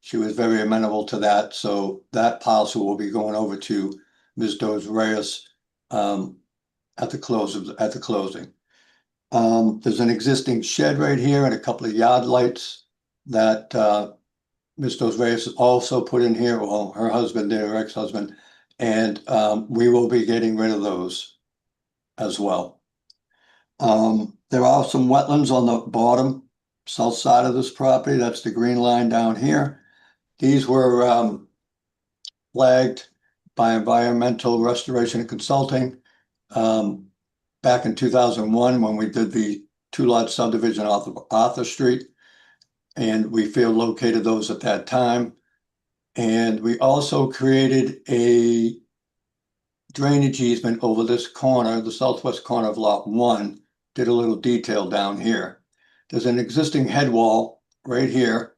She was very amenable to that, so that policy will be going over to Ms. Dos Reyes um, at the close of, at the closing. Um, there's an existing shed right here and a couple of yard lights that uh, Ms. Dos Reyes also put in here, well, her husband, did, her ex-husband, and um, we will be getting rid of those as well. Um, there are some wetlands on the bottom, south side of this property. That's the green line down here. These were, um, flagged by Environmental Restoration and Consulting, um, back in two thousand one, when we did the two lot subdivision off of Arthur Street. And we field located those at that time. And we also created a drainage easement over this corner, the southwest corner of lot one did a little detail down here. There's an existing head wall right here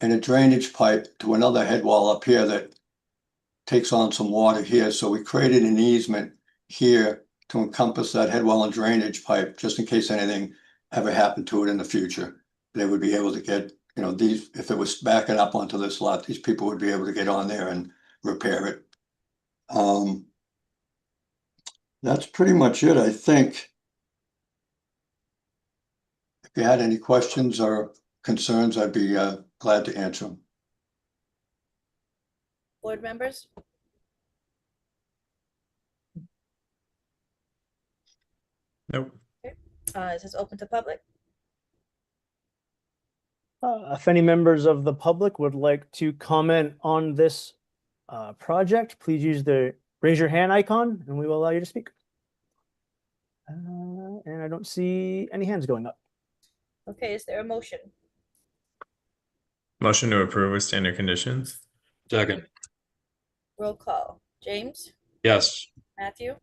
and a drainage pipe to another head wall up here that takes on some water here. So we created an easement here to encompass that head wall and drainage pipe, just in case anything ever happened to it in the future. They would be able to get, you know, these, if it was backing up onto this lot, these people would be able to get on there and repair it. Um, that's pretty much it, I think. If you had any questions or concerns, I'd be uh, glad to answer them. Board members? Nope. Uh, is this open to public? Uh, if any members of the public would like to comment on this uh, project, please use the raise your hand icon and we will allow you to speak. Uh, and I don't see any hands going up. Okay, is there a motion? Motion to approve with standard conditions? Second, Roll call. James? yes. Matthew?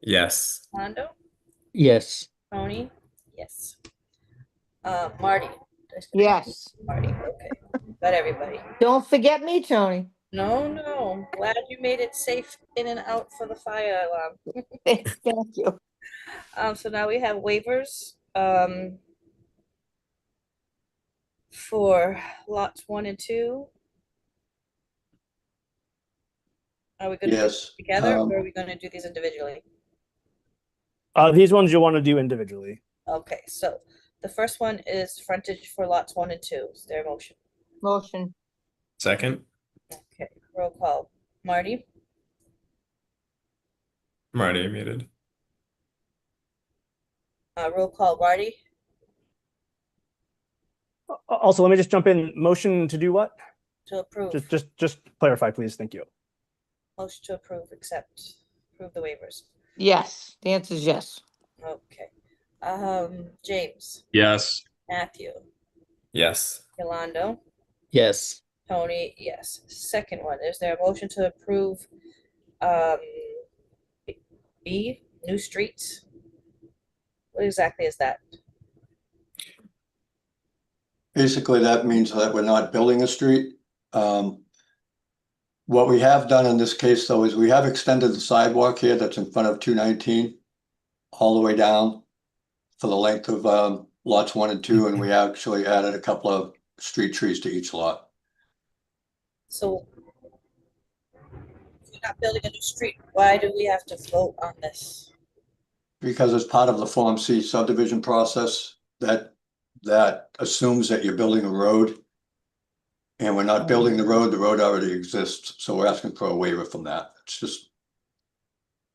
Yes. Rondo? Yes. Tony? Yes. Uh, Marty? Yes. Marty, okay. Got everybody. Don't forget me, Tony. No, no. Glad you made it safe in and out for the fire alarm. Thank you. Um, so now we have waivers, um, for lots one and two. Are we gonna do Yes, this together um, or are we gonna do these individually? Uh, these ones you'll want to do individually. Okay, so the first one is frontage for lots one and two. Is there a motion? Motion, Second? Okay, roll call. Marty, I'm already muted. uh, roll call. Marty, Al- Uh, Also, let me just jump in. Motion to do what? to approve. Just, just, just clarify, please. Thank you. Motion to approve, accept, approve the waivers. yes. The answer is yes. Okay. Um, James, Yes. Matthew, Yes. Yolando. Yes. Tony, yes. Second one, is there a motion to approve, um, B- B, new streets? What exactly is that? Basically, that means that we're not building a street. Um, What we have done in this case, though, is we have extended the sidewalk here that's in front of two nineteen all the way down for the length of um, lots one and two, and we actually added a couple of street trees to each lot. So if we're not building a new street, why do we have to vote on this? Because as part of the Form C subdivision process, that, that assumes that you're building a road. And we're not building the road, the road already exists, so we're asking for a waiver from that. It's just,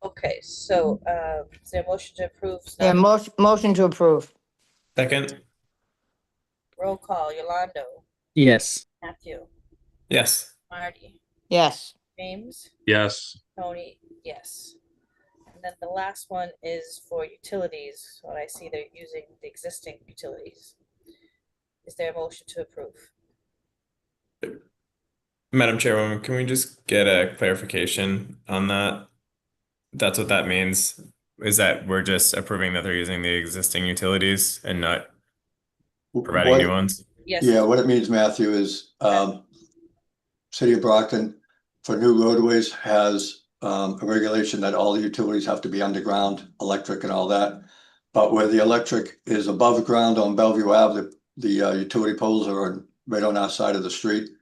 Okay, so, uh, is there a motion to approve? It's Yeah, not- motion, motion to approve. Second? Roll call, Yolando, Yes. Matthew, Yes. Marty, Yes. James, Yes. Tony, yes. And then the last one is for utilities, what I see they're using the existing utilities. Is there a motion to approve? Madam Chairwoman, can we just get a clarification on that? That's what that means, is that we're just approving that they're using the existing utilities and not providing new what- ones? Yes. yeah, what it means, Matthew, is, um, City of Brockton for new roadways has, um, a regulation that all the utilities have to be underground, electric and all that. But where the electric is above ground on Bellevue Ave, the, the uh, utility poles are on- right on our side of the street.